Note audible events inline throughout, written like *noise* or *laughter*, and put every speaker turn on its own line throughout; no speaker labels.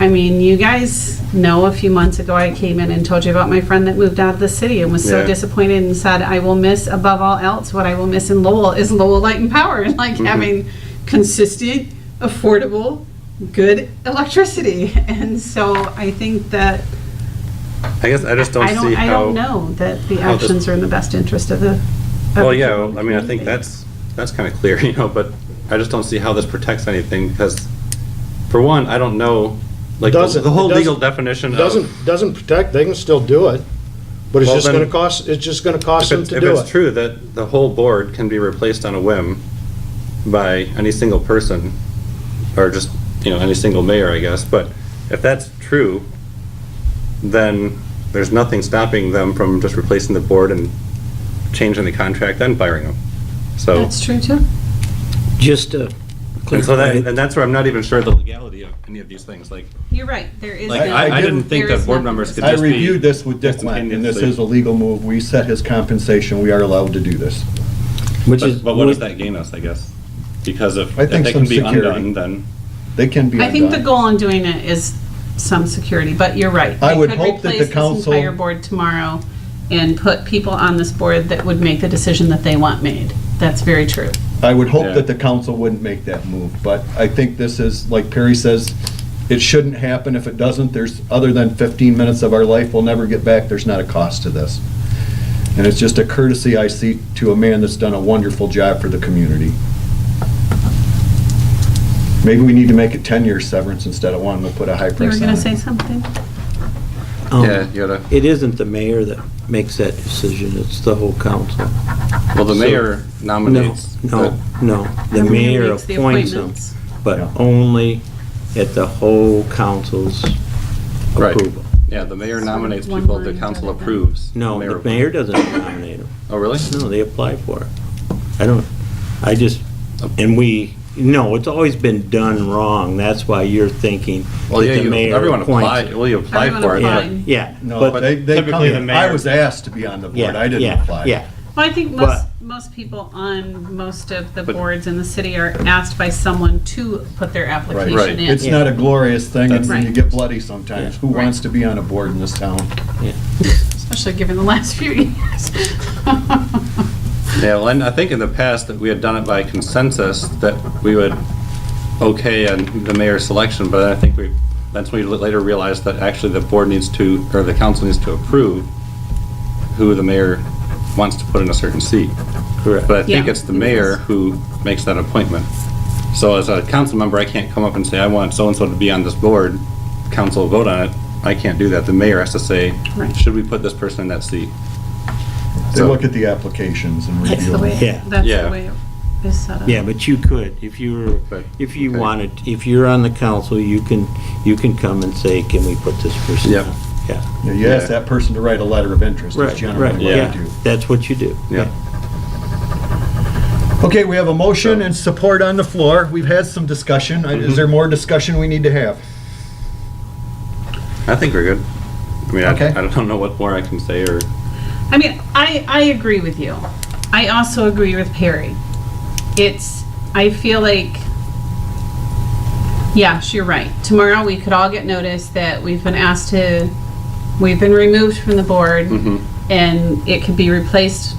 I mean, you guys know a few months ago, I came in and told you about my friend that moved out of the city and was so
Yeah.
disappointed and said, I will miss above all else, what I will miss in Lowell is Lowell Light and Power, *laughs* and like
Mm-hmm.
having consistent, affordable, good electricity. And so I think that,
I guess I just don't
I don't,
see
I
how.
don't know that the
how this-
actions are in the best interest of the. of
Well,
the
yeah,
people in the
I mean, I think
community.
that's, that's kind of clear, *laughs* you know, but I just don't see how this protects anything because, for one, I don't know, like, the-
Doesn't-
the whole
it doesn't-
legal definition of.
Doesn't, doesn't protect, they can still do it, but it's
Well,
just
then-
gonna cost, it's just gonna
If
cost them
it's,
to
if
do
it's
it.
true that the whole board can be replaced on a whim by any single person, or just, you know, any single mayor, I guess, but if that's true, then there's nothing stopping them from just replacing the board and changing the contract and firing them. So,
That's true too.
Just to
and so that,
clarify,
and that's where I'm not even sure the legality of any of these things, like,
You're right, there is.
like,
no-
I, I didn't think
there is
that board
nothing
members could
I
just be.
reviewed this with Dick Wendt, and this is a legal move. We set his compensation. We are allowed to do this.
which is,
But but what does that gain us, I guess? Because if,
I
if
think
they
some
can be
security.
undone, then.
They can be
I think the
undone.
goal in doing it is some security, but you're right.
I
They
would
could
hope that the
replace this
council-
Entire board tomorrow and put people on this board that would make the decision that they want made. That's very true.
I would hope
Yeah.
that the council wouldn't make that move, but I think this is, like Perry says, it shouldn't happen. If it doesn't, there's, other than 15 minutes of our life we'll never get back, there's not a cost to this. And it's just a courtesy I see to a man that's done a wonderful job for the community. Maybe we need to make it 10-year severance instead of one. We'll put a high price on
You
it.
were going to say something? Oh.
um,
you gotta.
it isn't the mayor that makes that decision, it's the whole council.
Well, the
So-
mayor
No,
nominates.
no, no, the mayor appoints them, but
Yeah.
only at the whole council's
Right.
approval.
Yeah, the mayor
So
nominates
one
people the
line
council
rather than-
approves.
No, the mayor doesn't nominate them.
Oh, really?
No, they apply for it. I don't, I just,
Oh.
and we, no, it's always been done wrong, that's why you're thinking that
Well, yeah,
the
you,
mayor
everyone
appoints
applied,
it.
well, you applied
Everyone
for it.
Yeah,
but-
applied.
yeah.
No,
but-
they, they come
typically the
here. I
mayor-
was asked to be on the board.
yeah,
I didn't
yeah,
apply.
Yeah,
Well, I think most,
But-
most people on most of the
But-
boards in the city are asked by someone to put their
Right.
application in.
It's not a glorious thing, and
That's-
you get bloody sometimes. Who
Right.
wants to be on a board in this town?
Especially given the last few years. *laughs*
Yeah, well, and I think in the past that we had done it by consensus that we would okay on the mayor's selection, but I think we, that's when we later realized that actually the board needs to, or the council needs to approve who the mayor wants to put in a certain seat.
correct.
But I think
Yeah.
it's the mayor who makes that appointment. So as a council member, I can't come up and say, I want so-and-so to be on this board. Council will vote on it. I can't do that. The mayor has to say,
Right.
should we put this person in that seat?
They
So-
look at the applications and
That's
review
the
them.
way,
Yeah.
that's the
Yeah.
way it is set up.
Yeah, but you could, if you were,
But-
if you
okay.
wanted, if you're on the council, you can, you can come and say, can we put this person
Yep.
on? Yeah,
You know, You ask
Yeah.
that person to write a letter of interest, is
right,
generally
right,
what
yeah.
they
yeah,
do.
that's what you do.
Yeah.
Okay, we have a motion and support on the floor. We've had some discussion. I- Is there more discussion we need to have?
I think we're good. I mean, I
Okay.
I don't know what more I can say or,
I mean, I, I agree with you. I also agree with Perry. It's, I feel like, yes, you're right. Tomorrow, we could all get notice that we've been asked to, we've been removed from the board, and it could be replaced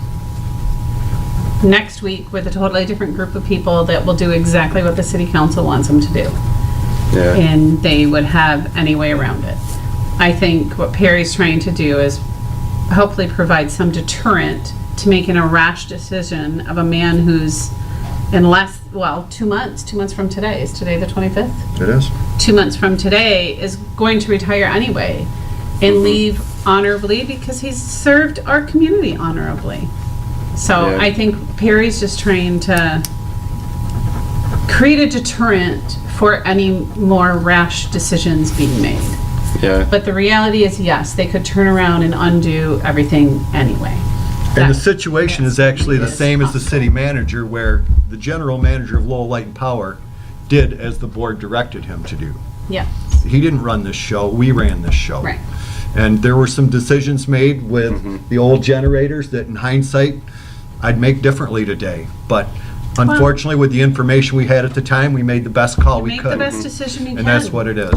next week with a totally different group of people that will do exactly what the city council wants them to do
yeah.
and they would have any way around it. I think what Perry's trying to do is hopefully provide some deterrent to making a rash decision of a man who's in less, well, two months, two months from today, is today the 25th?
It is.
two months from today is going to retire anyway and
Mm-hmm.
leave honorably because he's served our community honorably. So
Yeah.
I think Perry's just trying to create a deterrent for any more rash decisions being made.
Yeah.
But the reality is, yes, they could turn around and undo everything anyway.
And the
That-
situation is actually the same as the city manager, where the general manager of Lowell Light and Power did as the board directed him to do.
Yeah,
he didn't run this show, we ran this show.
Right.
And there were some decisions made with the old generators that in hindsight, I'd make differently today. But unfortunately, with the information we had at the time, we made the best call we
make
could.
the best decision you can.
And that's what it is.